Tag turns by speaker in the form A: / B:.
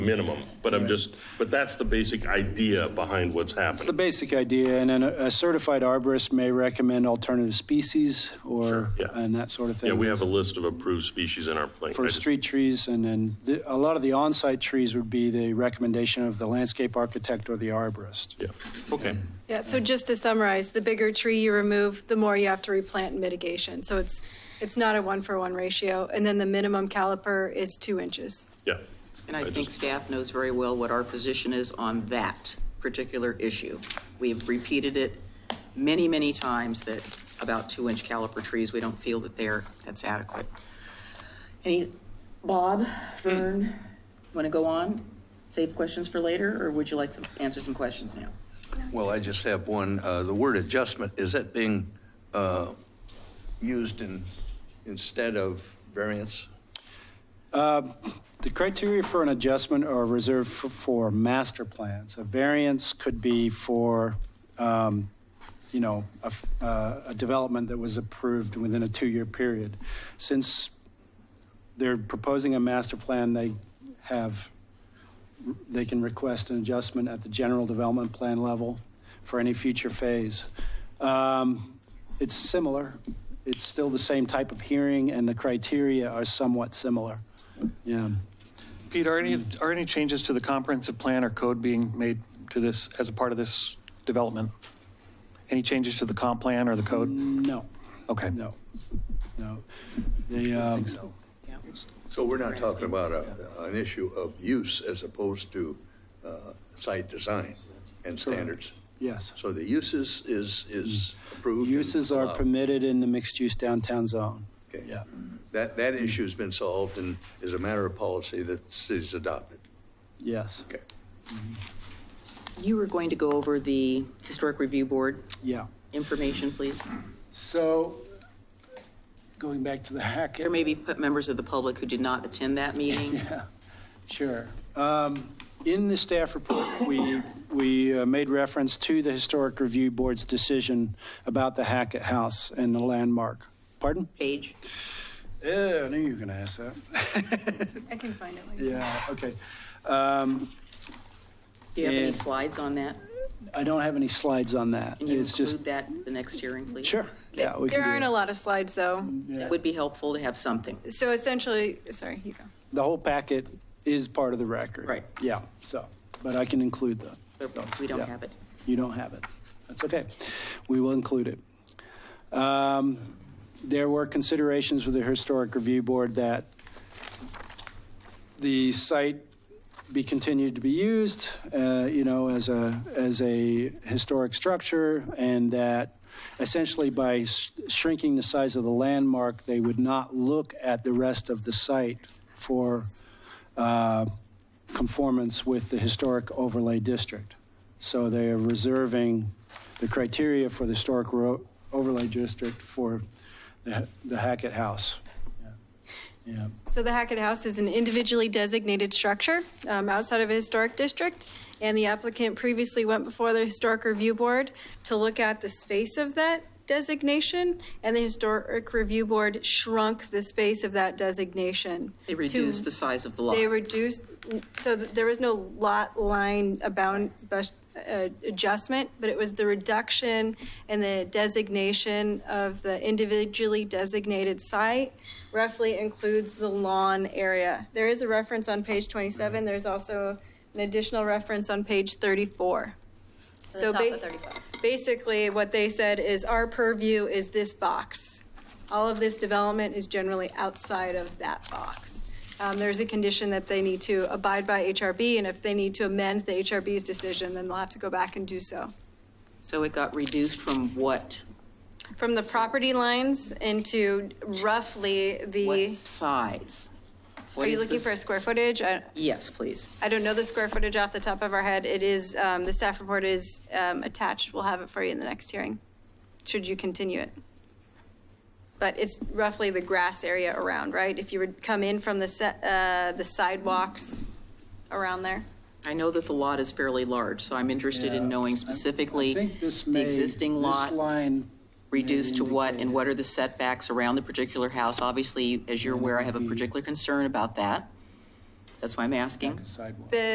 A: minimum, but I'm just, but that's the basic idea behind what's
B: That's the
A: happening.
B: basic idea, and then a a certified arborist may recommend alternative species or,
A: yeah.
B: and that sort of thing.
A: Yeah, we have a list of approved species in our plan. I
B: For
A: just-
B: street trees, and then the- a lot of the on-site trees would be the recommendation of the landscape architect or the arborist.
A: Yeah, okay.
C: Yeah, so just to summarize, the bigger tree you remove, the more you have to replant and mitigation. So it's, it's not a one-for-one ratio. And then the minimum caliper is two inches.
A: Yeah.
D: And I
A: I
D: think
A: just-
D: staff knows very well what our position is on that particular issue. We've repeated it many, many times that about two-inch caliper trees, we don't feel that they're, that's adequate. Any, Bob, Vern, want to go on? Save questions for later, or would you like to answer some questions now?
E: Well, I just have one. Uh, The word adjustment, is that being uh, used in, instead of variance?
B: The criteria for an adjustment are reserved for, for master plans. A variance could be for, um, you know, a, f- uh, a development that was approved within a two-year period. Since they're proposing a master plan, they have, they can request an adjustment at the general development plan level for any future phase. Um, It's similar. It's still the same type of hearing, and the criteria are somewhat similar. Yeah.
F: Pete, are any, are any changes to the comprehensive plan or code being made to this, as a part of this development? Any changes to the comp plan or the code?
B: No,
F: Okay.
B: no, no. They, um,
D: Yeah.
E: So we're not talking about a- an issue of use as opposed to uh, site design and standards?
B: yes.
E: So the uses is, is approved? and
B: Mm.
E: uh,
B: Uses are
E: allowed.
B: permitted in the mixed-use downtown zone.
E: Okay.
B: Yeah.
D: Mm-hmm.
E: That, that
B: Mm.
E: issue's been solved and is a matter of policy that cities adopted.
B: Yes,
E: Okay.
D: You were going to go over the Historic Review Board
B: yeah.
D: information, please?
B: So, going back to the hack.
D: There may be members of the public who did not attend that meeting.
B: Sure. Um, In the staff report, we, we uh, made reference to the Historic Review Board's decision about the Hackett House and the landmark. Pardon?
D: Page?
B: Yeah, Eh, I knew you were going to ask that.
C: I can find it later.
B: Yeah, okay. Um,
D: Do you have any
B: And-
D: slides on that?
B: I don't have any slides on that.
D: Can you
B: It's just
D: include that at the next hearing, please?
B: Sure, yeah. we
C: There
B: can do
C: aren't
B: that. Mm-hmm.
C: a lot of slides, though.
D: It would be helpful to have something.
C: So essentially, sorry, you go.
B: The whole packet is part of the record.
D: Right.
B: Yeah, so, but I can include that.
D: But We don't have it.
B: You don't have it. That's okay. We will include it. Um, There were considerations with the Historic Review Board that the site be continued to be used, uh, you know, as a, as a historic structure, and that essentially by s- shrinking the size of the landmark, they would not look at the rest of the site for uh, conformance with the historic overlay district. So they are reserving the criteria for the historic ro- overlay district for the the Hackett House. Yeah. Yeah.
C: So the Hackett House is an individually designated structure um, outside of a historic district, and the applicant previously went before the Historic Review Board to look at the space of that designation, and the Historic Review Board shrunk the space of that designation.
D: They
C: to-
D: reduced the size of the lot.
C: They reduced, so th- there was no lot line abound, bus- uh, adjustment, but it was the reduction and the designation of the individually designated site roughly includes the lawn area. There is a reference on page 27, there's also an additional reference on page 34. So ba- basically, what they said is our purview is this box. All of this development is generally outside of that box. Um, There's a condition that they need to abide by HRB, and if they need to amend the HRB's decision, then they'll have to go back and do so.
D: So it got reduced from what,
C: From the property lines into roughly
D: what
C: the,
D: size? What
C: are you
D: is
C: looking
D: this-
C: for a square footage? I-
D: Yes, please.
C: I don't know the square footage off the top of our head. It is, um, the staff report is um, attached. We'll have it for you in the next hearing, should you continue it. But it's roughly the grass area around, right? If you would come in from the se- uh, the sidewalks around there.
D: I know that the lot is fairly large, so I'm interested in knowing specifically
B: I think this
D: the
B: may-
D: existing
B: this
D: lot
B: line
D: reduced
B: may
D: to what, and
B: indicate-
D: what are the setbacks around the particular house? Obviously, as you're aware, I have a particular concern about that.
G: That's why I'm asking.
D: sidewalk.
B: The